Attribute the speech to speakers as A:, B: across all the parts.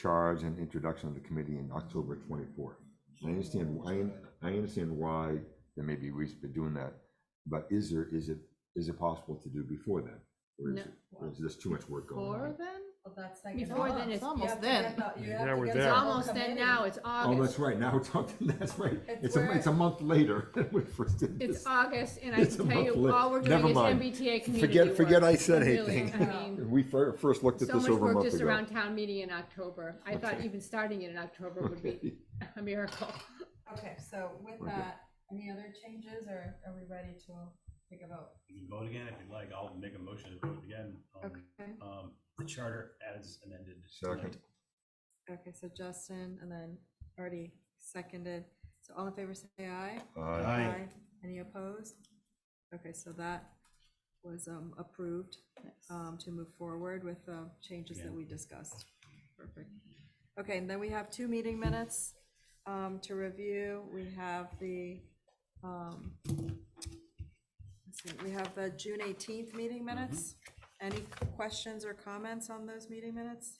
A: charge and introduction of the committee in October twenty-fourth. I understand, I, un- I understand why there may be reasons for doing that, but is there, is it, is it possible to do before then? Or is
B: No.
A: it, or is this too much work going
B: Before
A: on?
B: then?
C: Well, that's like.
B: Before then, it's almost then.
D: Yeah, we're
B: It's
D: there.
B: almost then now, it's
A: Oh, that's
B: August.
A: right, now we're talking, that's right,
C: It's
A: it's a,
C: where-
A: it's a month later than we first did this.
B: It's August and I
A: It's
B: can
A: a
B: tell
A: month li-
B: you, all we're doing
A: never
B: is
A: mind.
B: MBTA community
A: Forget,
B: work.
A: forget I said
B: Really,
A: anything.
B: I mean,
A: We fir- first looked at
B: So
A: this
B: much
A: over a
B: work
A: month
B: just
A: ago.
B: around town meeting in October. I thought even starting it in October would be a miracle.
C: Okay, so with
A: We're good.
C: that, any other changes or are we ready to take a vote?
E: You can vote again if you'd like. I'll make a motion to vote again. on,
C: Okay,
E: Um, the charter as amended.
A: Second.
E: tonight.
C: okay, so Justin and then already seconded. So all in favor, say aye.
A: Uh,
E: Aye.
C: Any opposed? Okay, so that was um, approved um, to move forward with the changes that
E: Yeah.
C: we discussed. Perfect. Okay, and then we have two meeting minutes um, to review. We have the, um, let's see, we have the June eighteenth meeting
E: Mm-hmm.
C: minutes. Any questions or comments on those meeting minutes?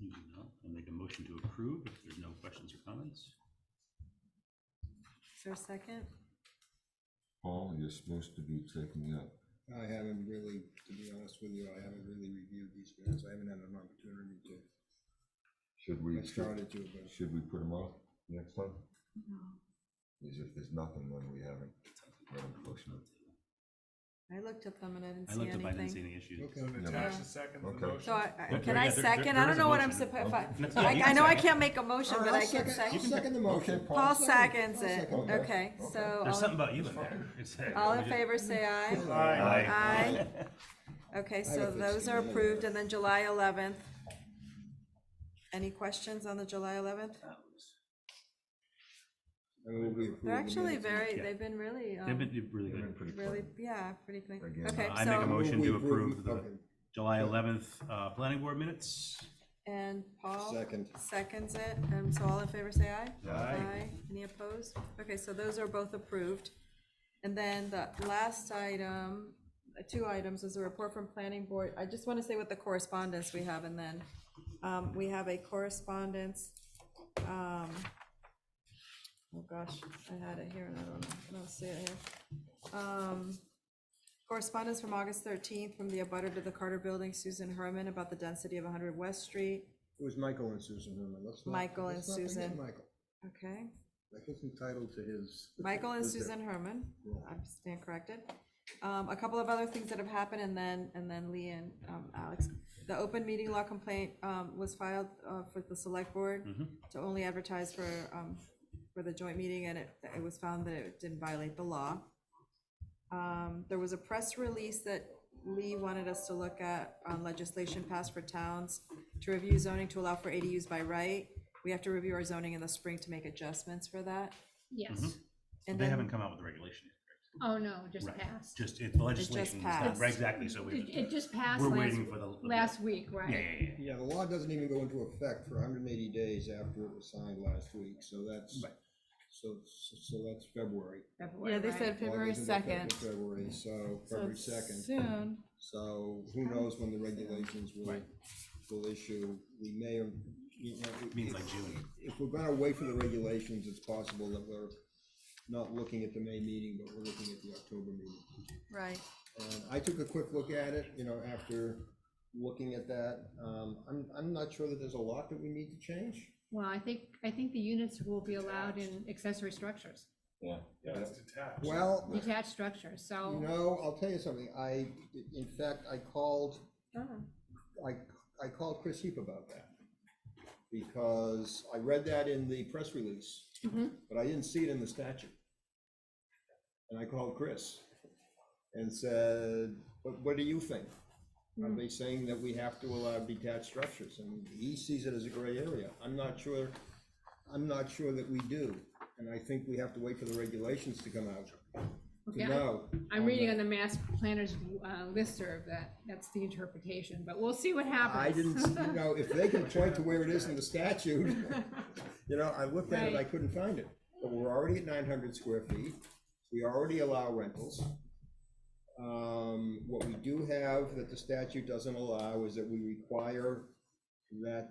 E: You can, uh, I'll make a motion to approve if there's no questions or comments.
C: Is there a second?
A: Paul, you're supposed to be taking up.
F: I haven't really, to be honest with you, I haven't really reviewed these minutes. I haven't had an opportunity to.
A: Should we,
F: I started to, but
A: should we put them off next time? Is if there's nothing, then we haven't. we haven't pushed it.
C: I looked at them and I didn't
E: I
C: see
E: looked up, I didn't see
C: anything.
E: any issues.
F: okay.
C: Yeah.
G: second
A: Okay.
C: So I, I-
E: Yeah,
C: can
E: there-
C: I
E: yeah, there- there-
C: second?
E: there
C: I don't
E: is a
C: know what I'm
E: motion.
C: supposed,
E: No,
C: I,
E: you
C: I
E: can
C: know I
E: second.
C: can't make a motion,
F: All
C: but
F: right, I'll
C: I can
F: second- I'll
C: second.
F: Second the motion.
C: Paul
F: seconded.
C: seconds
F: I'll
C: it,
F: second
C: okay, so,
E: There's
C: all-
E: something about you in there. It's, uh,
C: all in
E: we just-
C: favor, say aye.
G: Aye.
C: Aye. Okay, so
F: don't think
C: those
F: so,
C: are
F: yeah.
C: approved, and then July eleventh. Any questions on the July eleventh?
F: I move we approve the
C: They're actually
F: minutes.
C: very,
E: Yeah.
C: they've been really,
E: They've
C: um,
E: been they've really good.
C: really, yeah, pretty clean.
A: Again,
C: Okay,
E: I make a
C: so,
E: mo- Motion
F: Move we
E: to approve the-
F: okay,
E: July eleventh, uh, planning board minutes.
C: and Paul
F: Second.
C: seconds it, and so all in favor, say aye.
E: Aye.
C: Any opposed? Okay, so those are both approved. And then the last item, uh, two items, is a report from planning board. I just want to say what the correspondence we have, and then um, we have a correspondence. um, Oh, gosh, I had it here, and I don't know, I don't see it here. Um, Correspondence from August thirteenth from the abutter to the Carter Building, Susan Herman, about the density of hundred West Street.
F: It was Michael and Susan Herman. Let's not.
C: Michael and
F: let's not forget
C: Susan.
F: Michael.
C: Okay.
F: Michael's entitled to his.
C: Michael and
F: his-
C: Susan Herman,
F: Yeah.
C: I stand corrected. Um, a couple of other things that have happened, and then, and then Lee and, um, Alex. The open meeting law complaint, um, was filed, uh, for the select board to only advertise for, um, for the joint meeting, and it, it was found that it didn't violate the law. Um, there was a press release that Lee wanted us to look at on legislation passed for towns to review zoning to allow for ADUs by right. We have to review our zoning in the spring to make adjustments for that.
B: Yes.
C: And
E: They
C: then-
E: haven't come out with the regulation. yet, correct?
B: Oh, no, just
E: Right.
B: passed. It-
E: Just, it's legislation. is not-
C: passed.
E: Right, exactly, so we.
B: It just passed
E: We're
B: last,
E: waiting for the. the-
B: last week, right?
E: Yeah, yeah, yeah.
F: Yeah, the law doesn't even go into effect for hundred and eighty days after it was signed last week, so that's,
E: Right.
F: so, so that's February.
B: February,
C: Yeah, they
B: right?
F: Law
C: said February
F: goes into effect in
C: second.
F: February, so
C: So
F: February
C: it's
F: second.
C: Soon.
F: So who knows when the regulations will,
E: Right.
F: will issue, we may, or- you know. it-
E: Means like June.
F: If we're gonna wait for the regulations, it's possible that we're not looking at the May meeting, but we're looking at the October meeting.
C: Right.
F: And I took a quick look at it, you know, after looking at that, um, I'm, I'm not sure that there's a lot that we need to change.
B: Well, I think, I think the units will be allowed in accessory structures,
A: Yeah.
G: Yeah, it's detached.
F: Well,
B: detached structures,
F: you
B: so.
F: know, I'll tell you something, I, in fact, I called
B: Uh-huh.
F: I, I called Chris Heap about that. Because I read that in the press release,
B: Mhm.
F: but I didn't see it in the statute. And I called Chris and said, what, what do you think?
B: Mm.
F: Are they saying that we have to allow detached structures? And he sees it as a gray area. I'm not sure, I'm not sure that we do. And I think we have to wait for the regulations to come out
B: Okay,
F: to
B: I-
F: know.
B: I'm reading on
F: that.
B: the mass planners uh, listserv that, that's the interpretation, but we'll see what happens.
F: I didn't, you know, if they can point to where it is in the statute, you know, I looked at it, I
B: Right.
F: couldn't find it. But we're already at nine hundred square feet, we already allow rentals. Um, what we do have that the statute doesn't allow is that we require that